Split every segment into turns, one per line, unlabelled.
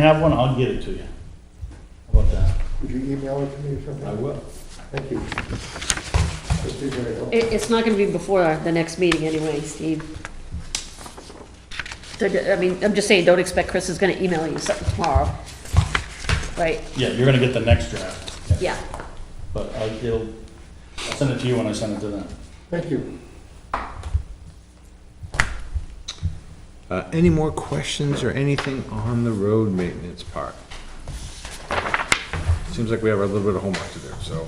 have one, I'll get it to you. How about that?
Would you email it to me or something?
will.
Thank you. oh, That'd be very helpful.
It, it's not gonna be before the next meeting anyway, Steve. So, I mean, I'm just saying, don't expect Chris is gonna email you something tomorrow. Right,
Yeah, you're gonna get the next draft.
yeah.
But I'll, it'll, I'll send it to you when I send it to them.
Thank you.
Uh, any more questions or anything on the road maintenance part? Seems like we have a little bit of homework to do, so.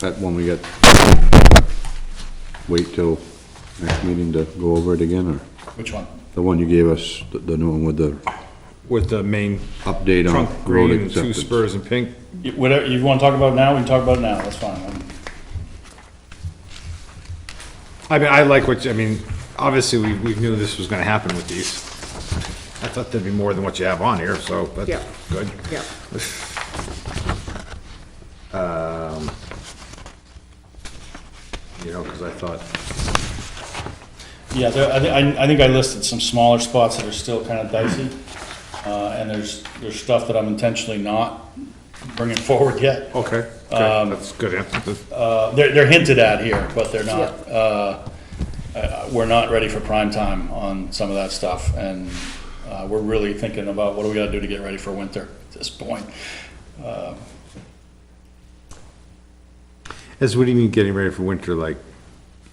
That one we got, wait till next meeting to go over it again, or
Which one?
the one you gave us, the- the new one with the
With the main
update on
trunk
road
green and two
acceptance?
spurs and pink,
You- Whatever, you wanna talk about it now, we can talk about it now, that's fine. I'm-
I mean, I like what, you- I mean, obviously, we, we knew this was gonna happen with these. I thought there'd be more than what you have on here, so
Yeah.
that's good.
Yeah.
You know, because I thought,
Yeah, there, I, thi- I, I think I listed some smaller spots that are still kind of dicey. Uh, and there's, there's stuff that I'm intentionally not bringing forward yet.
okay,
Um,
okay, that's good answer.
Uh, they're, they're hinted at here, but they're not,
Yeah.
uh, uh, we're not ready for prime time on some of that stuff. And, uh, we're really thinking about what do we gotta do to get ready for winter at this point.
As what do you mean getting ready for winter, like,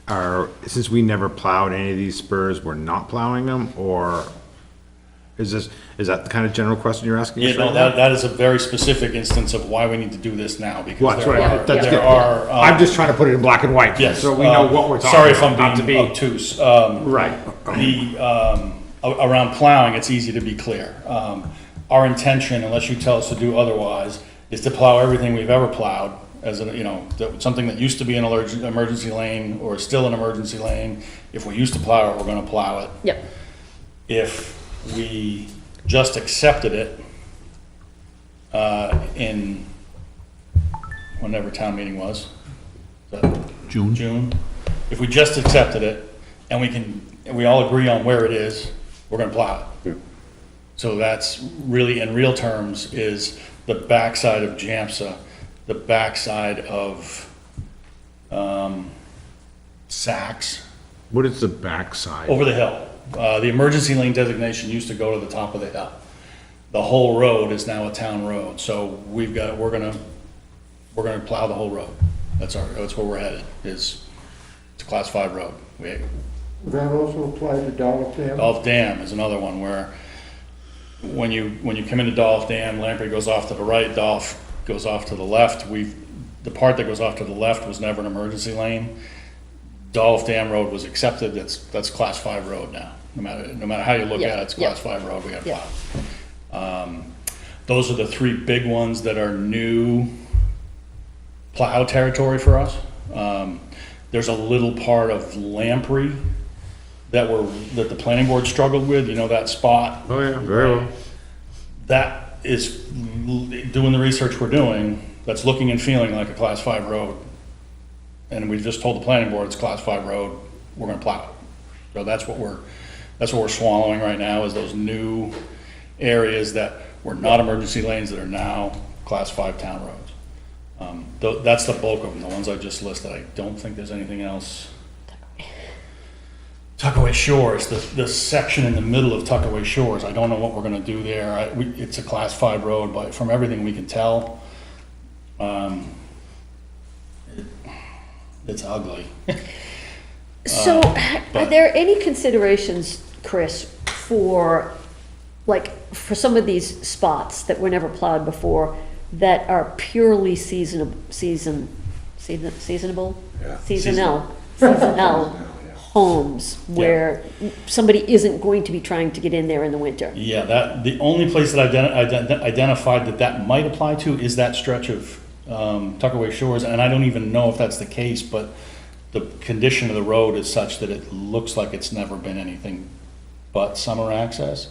are, since we never plowed any of these spurs, we're not plowing them, or is this, is that the kind of general question you're asking? us
Yeah, no,
right
that,
now?
that is a very specific instance of why we need to do this now,
Well,
because
that's
there
what I-
are,
that's
there
good.
are. um,
I'm just trying to put it in black and white,
yes,
so we know
uh,
what we're
Sorry
talking
if I'm
about, not to
being
be.
obtuse. Um,
Right,
The, um, a- around plowing, it's easy to be clear. Um, Our intention, unless you tell us to do otherwise, is to plow everything we've ever plowed as, a you know, that- something that used to be an allerg- emergency lane or is still an emergency lane. If we used to plow it, we're gonna plow it.
Yep,
If we just accepted it uh, in whenever town meeting was, the-
June.
June, if we just accepted it, and we can, and we all agree on where it is, we're gonna plow
Yeah.
it. So that's really, in real terms, is the backside of JAMSA, the backside of, um, Saks,
What is the backside?
over the hill. Uh, the emergency lane designation used to go to the top of the hill. The whole road is now a town road, so we've got, we're gonna, we're gonna plow the whole road. That's our, that's where we're headed, is it's a class five road. We,
Would that also apply to Dollar Dam?
Dolph Dam is another one where when you, when you come into Dolph Dam, Lamprey goes off to the right, Dolph goes off to the left. We've, the part that goes off to the left was never an emergency lane. Dolph Dam Road was accepted, that's, that's class five road now. No matter, no matter how you look at it, it's
Yeah, yeah.
class five road, we gotta
Yeah.
plow. Um, Those are the three big ones that are new plow territory for us. Um, There's a little part of Lamprey that were, that the planning board struggled with, you know, that spot
Oh, yeah, very well.
that is l- doing the research we're doing, that's looking and feeling like a class five road. And we just told the planning board it's class five road, we're gonna plow it. So that's what we're, that's what we're swallowing right now is those new areas that were not emergency lanes that are now class five town roads. Um, tho- that's the bulk of them, the ones I just listed. I don't think there's anything else. Tuckaway Shores, the, the section in the middle of Tuckaway Shores, I don't know what we're gonna do there. I, we, it's a class five road, but from everything we can tell, um, it's ugly.
so are
Uh, but-
there any considerations, Chris, for, like, for some of these spots that were never plowed before that are purely seasonable, season, season, seasonable? Seasonal, seasonal homes where somebody isn't going to be trying to get in there in the winter.
Yeah, that, the only place that I've ident- ident- identified that that might apply to is that stretch of, um, Tuckaway Shores, and I don't even know if that's the case, but the condition of the road is such that it looks like it's never been anything but summer access.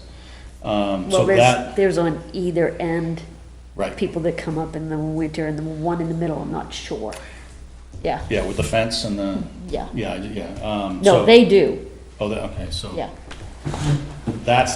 Um, so
Well,
that,
there's, there's on either end,
right.
people that come up in the winter and the one in the middle, I'm not sure. Yeah,
Yeah, with the fence and the,
yeah.
yeah, yeah. um,
No,
so-
they do,
Oh, they- okay, so
yeah.
that's